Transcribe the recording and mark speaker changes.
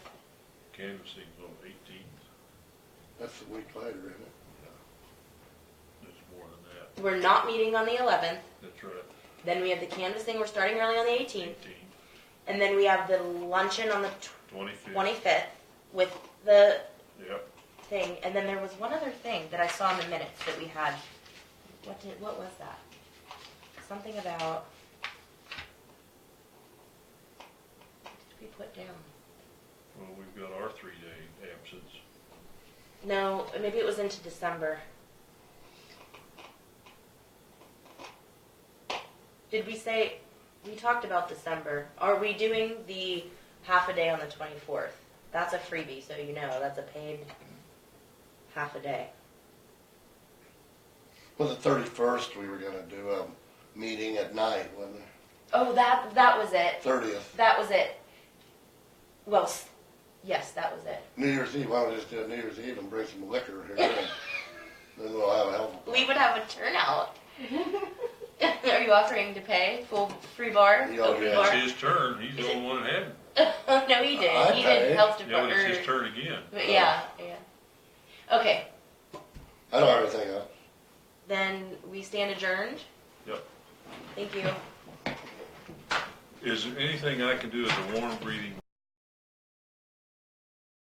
Speaker 1: canvassing's on eighteenth,
Speaker 2: That's a week later, isn't it?
Speaker 1: it's more than that,
Speaker 3: We're not meeting on the eleventh,
Speaker 1: that's right,
Speaker 3: then we have the canvassing, we're starting early on the eighteenth,
Speaker 1: eighteenth,
Speaker 3: and then we have the luncheon on the
Speaker 1: twenty-fifth.
Speaker 3: twenty-fifth with the
Speaker 1: Yep,
Speaker 3: thing, and then there was one other thing that I saw in the minutes that we had. What did, what was that? Something about. What did we put down?
Speaker 1: well, we've got our three-day absence,
Speaker 3: No, maybe it was into December. Did we say, we talked about December, are we doing the half a day on the twenty-fourth? That's a freebie, so you know, that's a paid half a day.
Speaker 2: Well, the thirty-first, we were gonna do a meeting at night, wasn't it?
Speaker 3: Oh, that, that was it,
Speaker 2: Thirtieth,
Speaker 3: That was it. Well, s- yes, that was it.
Speaker 2: New Year's Eve, why don't we just do a New Year's Eve and bring some liquor here? and Then we'll have a hell of
Speaker 3: We would have a turnout. Are you offering to pay full free bar?
Speaker 2: Yeah,
Speaker 3: Full free
Speaker 2: yeah.
Speaker 3: bar?
Speaker 1: it's his turn, he's the only one that had,
Speaker 3: no, he didn't.
Speaker 2: I
Speaker 3: he
Speaker 2: paid.
Speaker 3: didn't help
Speaker 1: yeah, but it's his turn
Speaker 3: department.
Speaker 1: again.
Speaker 3: But yeah, yeah. Okay,
Speaker 2: a, I don't have anything else.
Speaker 3: then we stand adjourned.
Speaker 1: Yep.
Speaker 3: Thank you.
Speaker 1: Is there anything I can do as a warm breathing